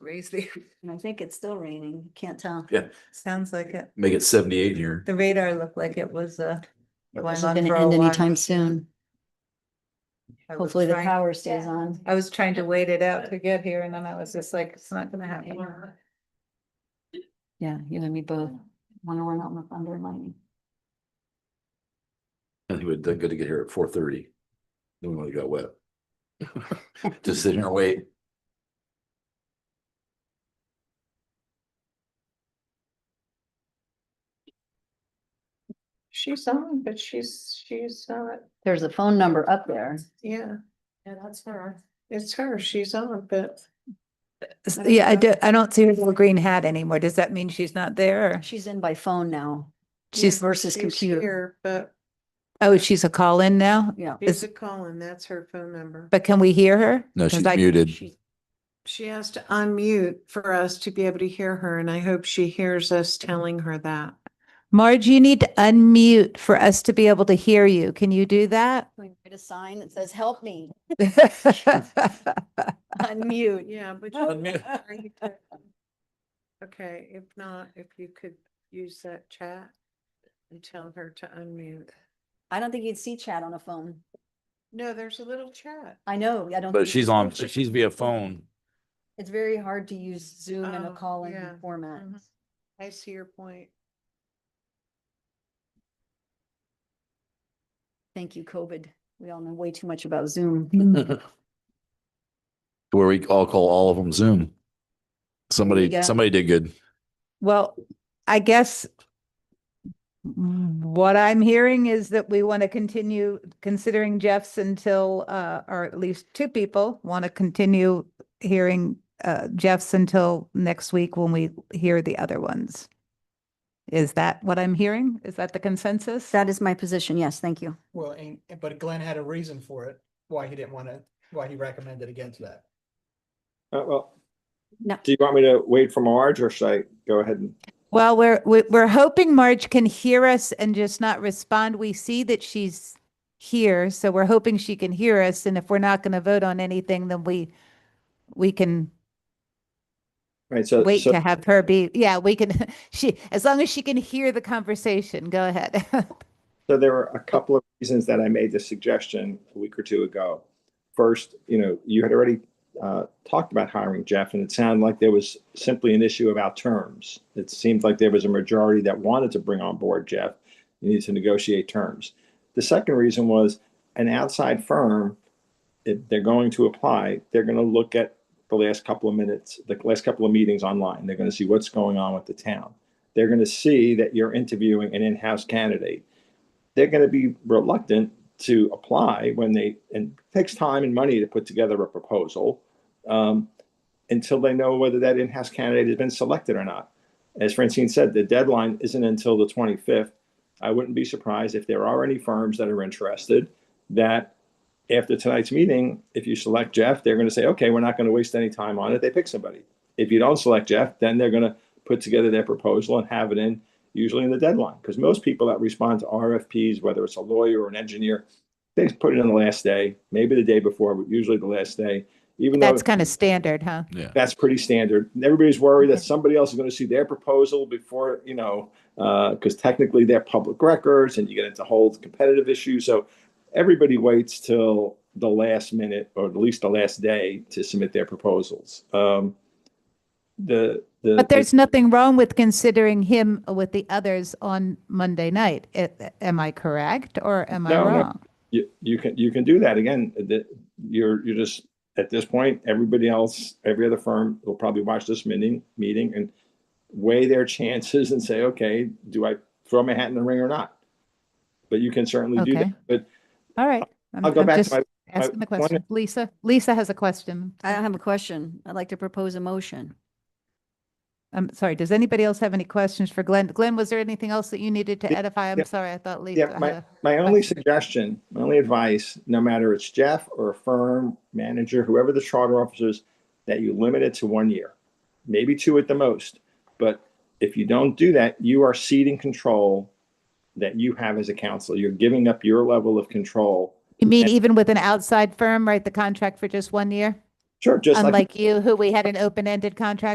raise the. And I think it's still raining, can't tell. Yeah. Sounds like it. Make it seventy-eight here. The radar looked like it was, uh. going Isn't on gonna for a end while. anytime soon. I was Hopefully the trying- power stays on. I was trying to wait it out to get here and then I was just like, it's not gonna happen. Yeah, you and me both. Wonder when I'm up under lightning. I think it would, good to get here at four thirty. Then we would have got wet. Just sitting here and wait. She's on, but she's, she's not, There's a phone number up there. yeah, Yeah, that's her. it's her, she's on, but. I Yeah, I don't know. do, I don't see her little green hat anymore. Does that mean she's not there? or- She's in by phone now. She's- Versus She's computer. here, But Oh, she's a call-in now? Yeah. she's Is- a Colin, that's her phone number. But can we hear her? No, 'Cause she's I- muted. She has to unmute for us to be able to hear her, and I hope she hears us telling her that. Marge, you need to unmute for us to be able to hear you. Can you do that? We write a sign that says, help me, There unmute. Yeah, but. Unmute. Okay, if not, if you could use that chat and tell her to unmute. I don't think you'd see chat on a phone. No, there's a little chat. I know, I don't. But think she's you on, can. she's via phone. It's very hard to use Zoom in a Oh, call-in yeah. format. Mhm. I see your point. Thank you, COVID. We all know way too much about Zoom. Where we all call all of them Zoom. There you Somebody, go. somebody did good. Well, I guess what I'm hearing is that we want to continue considering Jeff's until, uh, or at least two people want to continue hearing, uh, Jeff's until next week when we hear the other ones. Is that what I'm hearing? Is that the consensus? That is my position. Yes, thank you. Well, and, but Glenn had a reason for it, why he didn't want to, why he recommended against that. Uh, well, No. do you want me to wait for Marge or should I go ahead and? Well, we're, we- we're hoping Marge can hear us and just not respond. We see that she's here, so we're hoping she can hear us. And if we're not going to vote on anything, then we, we can Right, so, wait Uh, so, to have her be, yeah, we can, she, as long as she can hear the conversation, go ahead. so there were a couple of reasons that I made this suggestion a week or two ago. First, you know, you had already uh, talked about hiring Jeff, and it sounded like there was simply an issue about terms. It seemed like there was a majority that wanted to bring on board Jeff. You needed to negotiate terms. The second reason was an outside firm, if they're going to apply, they're going to look at the last couple of minutes, the last couple of meetings online. They're going to see what's going on with the town. They're going to see that you're interviewing an in-house candidate. They're going to be reluctant to apply when they, and it takes time and money to put together a proposal um, until they know whether that in-house candidate has been selected or not. As Francine said, the deadline isn't until the 25th. I wouldn't be surprised if there are any firms that are interested that after tonight's meeting, if you select Jeff, they're going to say, okay, we're not going to waste any time on it. They pick somebody. If you don't select Jeff, then they're going to put together their proposal and have it in usually in the deadline. Because most people that respond to RFPs, whether it's a lawyer or an engineer, they put it in the last day, maybe the day before, but usually the last day. Even though That's kind of standard, huh? Yeah. that's pretty standard. And Everybody's worried that somebody else is going to see their proposal before, you know, because technically they're public records and you get into whole competitive issues. So everybody waits till the last minute or at least the last day to submit their proposals. Um, the, the, But there's nothing wrong with considering him with the others on Monday night. A- Am I correct or am I No, no. wrong? you, you can you can do that again. The, you're you're just at this point. Everybody else, every other firm will probably watch this meeting meeting and weigh their chances and say, okay, do I throw my hat in the ring or not? But you can certainly do Okay. that. But All right. I'm- I'll go I'm back just to my. my Asking the one- question. Lisa, Lisa has a question. I have a question. I'd like to propose a motion. I'm sorry, does anybody else have any questions for Glenn? Glenn, was there anything else that you needed to Yeah, edify? I'm yeah. sorry, I thought Lisa. Yeah, had my, a- my only suggestion, my only advice, no matter it's Jeff or a firm manager, whoever the charter officer is, that you limit it to one year, maybe two at the most. But if you don't do that, you are ceding control that you have as a council. You're giving up your level of control. You mean even with an outside firm, write the contract for just one year? Sure, just like. Unlike you, who we had an open-ended contract